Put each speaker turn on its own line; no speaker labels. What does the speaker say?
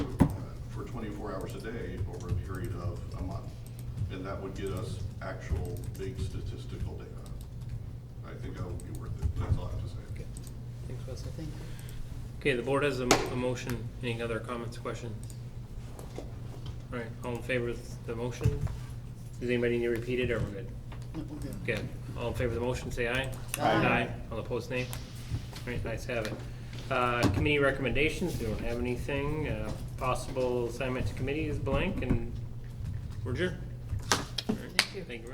twenty-four hours a day over a period of a month. And that would get us actual big statistical data. I think that would be worth it. That's all I have to say.
Okay. Thanks, Wesley.
Thank you.
Okay, the board has a, m- a motion. Any other comments, questions? All right, all in favor of the motion? Does anybody need to repeat it, or we're good?
No, we're good.
Okay, all in favor of the motion, say aye.
Aye.
All opposed, nay. All right, nice have it. Uh, committee recommendations, we don't have anything. Uh, possible assignment to committee is blank, and we're adjourned. All right,
Thank you.
Thank you.